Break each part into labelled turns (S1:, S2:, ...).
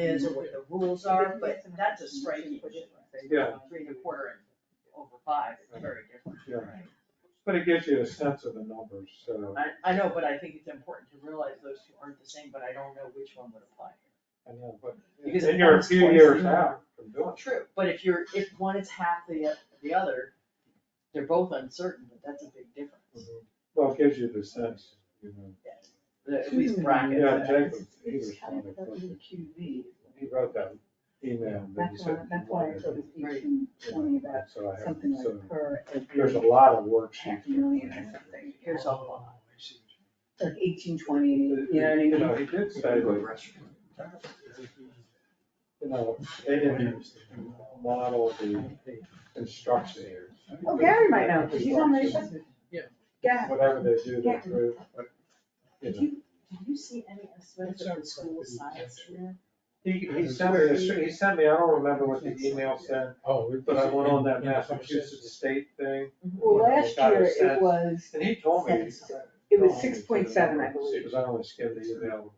S1: is or what the rules are, but that's a striking difference.
S2: Yeah.
S1: Three and a quarter and over five is very different.
S2: Yeah. But it gives you a sense of the numbers, so,
S1: I, I know, but I think it's important to realize those two aren't the same, but I don't know which one would apply.
S2: I know, but
S1: Because
S2: then you're a
S1: it's
S2: few
S1: twice
S2: years
S1: the number.
S2: out from doing it.
S1: True. But if you're, if one is half the, the other, they're both uncertain, but that's a big difference.
S2: Mhm. Well, it gives you the sense, you know.
S1: The- At least bracket.
S2: Yeah, Jacob, he
S3: It's
S2: was
S3: kind of
S2: funny.
S3: WQV,
S2: He wrote that email, and then he
S3: that's why,
S2: said.
S3: that's why I took a
S1: Right.
S3: page twenty about
S2: So I have,
S3: something
S2: so
S3: like per
S2: there's a
S3: every
S2: lot of worksheets.
S3: half million or something.
S1: Here's a lot.
S3: Like eighteen twenty, you know
S2: You
S3: what I
S2: know,
S3: mean?
S2: he did say that you know, they didn't model the construction here.
S3: Oh, Gary might know, 'cause he's on the assessment.
S1: Yeah.
S3: Yeah.
S2: Whatever they do, they do.
S3: Did you, did you see any estimates of the school size here?
S2: He, he sent me, a- he sent me, I don't remember what the email said,
S4: Oh,
S2: but I went on that Massachusetts state thing,
S3: Well, last
S2: Got a
S3: year it
S2: sense.
S3: was, Oh,
S2: and he told me.
S3: it
S2: Oh,
S3: was six point seven, I believe.
S2: Because I only skimmed the email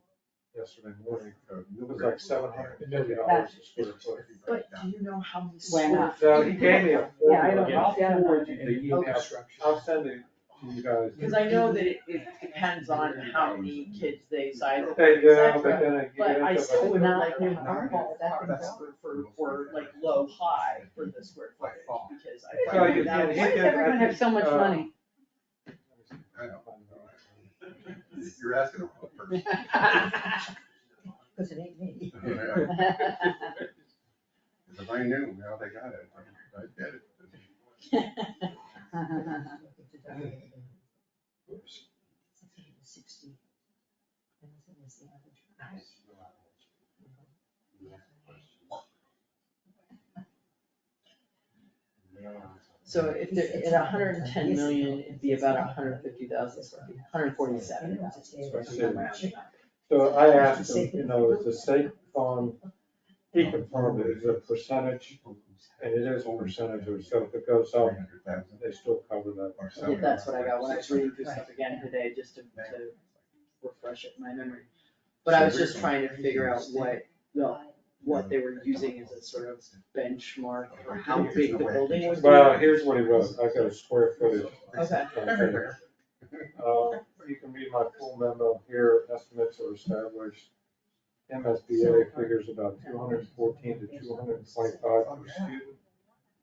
S2: yesterday morning, it was like seven hundred and fifty dollars
S3: That's-
S2: a square foot.
S1: But do you know how many
S3: Went
S1: schools?
S3: up.
S2: So he gave me a
S3: Yeah, I
S2: formula,
S3: don't-
S2: I'll
S3: yeah.
S2: forward you the email, I'll send it to you guys.
S1: Cause I know that it, it depends on how many kids they size up,
S2: They
S1: et
S2: do, but
S1: cetera.
S2: then I.
S1: But I still would not like an
S3: Not-
S1: ball
S3: that's
S1: part for, for, for like low high for the square foot ball, because I
S2: So
S1: find
S2: you
S1: that
S2: can
S3: Why
S2: hit
S3: does
S2: it-
S3: everyone have so much
S2: Uh,
S3: money?
S5: You're asking the wrong person.
S3: Cause it ain't me.
S5: Yeah. If I knew how they got it, I get it.
S3: Sixty.
S1: So if there, at a hundred and ten million, it'd be about a hundred and fifty thousand square feet, hundred forty-seven.
S2: So I asked him, you know, is the state fund, he confirmed it is a percentage, and it is a percentage or so, if it goes up, they still cover that.
S5: Or so.
S1: Yeah, that's what I got when I was reading through stuff again today, just to, to refresh it, my memory. But I was just trying to figure out what, the what they were using as a sort of benchmark for how big the building would be.
S2: Well, here's what he wrote, I got a square footage.
S1: Okay.
S5: Everywhere.
S2: Uh, you can read my full memo here, estimates are established. MSBA figures about two hundred and fourteen to two hundred and twenty-five per student.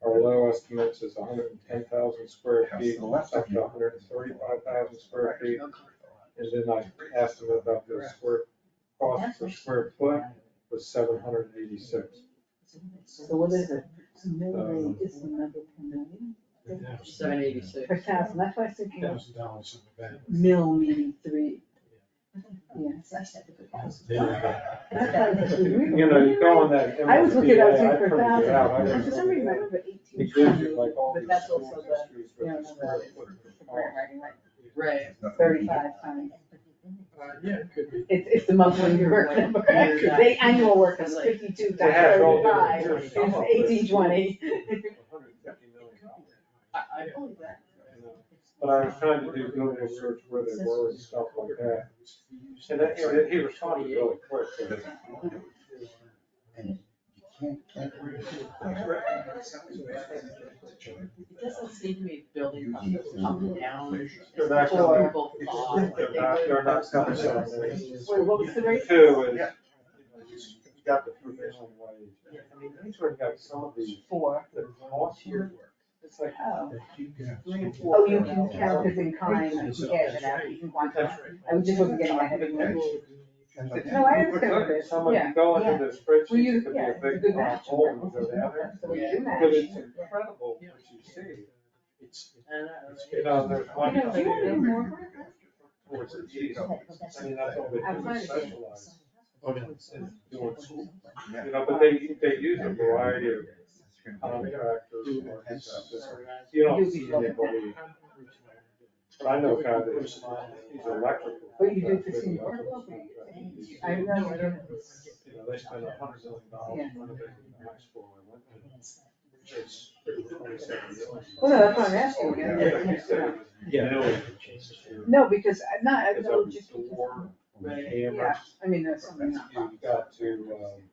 S2: Our low estimates is hundred and ten thousand square feet, up to hundred and thirty-five thousand square feet. And then I asked him about the square, cost per square foot was seven hundred and eighty-six.
S3: So what is it?
S2: Um,
S3: Million is the number per million,
S1: Seven eighty-six.
S3: per thousand, that's why I was thinking of
S4: Thousand dollars in the
S3: mil meaning three. Yes.
S4: bank.
S3: That's how it's written.
S2: You know, you go on that
S3: I was looking at it, I was
S2: MSBA, I
S3: looking for
S2: printed it out. I
S3: thousand,
S2: didn't
S3: for some reason I
S2: know.
S3: remember eighteen
S2: It gives you
S3: twenty,
S2: like all
S3: But
S2: these
S3: that's
S2: schools
S3: also the-
S2: histories with
S3: you know,
S2: the square foot of the cost.
S1: Right.
S3: thirty-five times.
S2: Uh,
S4: Yeah, it could be.
S3: It's, it's the monthly work number, the annual work is fifty-two
S2: They have it all
S3: times
S2: there.
S3: thirty-five,
S2: Here's
S3: it's
S2: some of it.
S3: eighteen twenty.
S2: $150 million.
S1: I, I believe that.
S2: But I was trying to do Google search where they were and stuff like that. And that, you know, he responded really quick. so-
S1: It doesn't seem to be building up,
S5: Mhm.
S1: up and down,
S2: They're
S1: as much
S2: not
S1: as
S2: gonna-
S1: people thought.
S2: They're not, they're not coming down there.
S3: Wait, what was the rate?
S2: Two is,
S5: Yeah.
S2: you got the provisional wage. I mean, these were like some of the,
S3: Four.
S2: the cost here, it's like
S3: Oh,
S2: three and four.
S3: Oh, you can count it in kind, you can get it out, you can quantify. I was just looking at my head. No, I understand this,
S2: Someone
S3: yeah.
S2: can go into the spreadsheet,
S3: Well, you-
S2: it could be
S3: yeah,
S2: a
S3: it's a
S2: big
S3: good
S2: uh,
S3: match.
S2: hole and go down there.
S3: So we do match.
S2: But it's incredible what you see. You know, there's one.
S3: You know, do you want to do more?
S2: Towards the east. I mean, that's all
S3: I'm
S2: they
S3: trying
S2: do,
S3: to get-
S2: specialize.
S4: Oh, no.
S2: in doing school. You know, but they, they use a variety of um, contractors. or businesses. You don't see anybody, but I know a guy that, he's electrical.
S3: But you do
S2: contractor,
S3: fifteen.
S2: he's an electrical
S3: I
S2: contractor.
S3: remember doing this.
S2: You know, they spend a hundred million dollars
S3: Yeah.
S2: renovating the high school I went to. It's twenty-seven million.
S3: Well, no, that's what I'm asking.
S2: Yeah,
S3: you.
S2: like you said, it was millions.
S3: No, because I'm not, I
S2: It's
S3: know
S2: open
S3: just
S2: door,
S3: because,
S2: cameras. um,
S3: yeah, I mean, that's something
S2: You
S3: not.
S2: got to, um,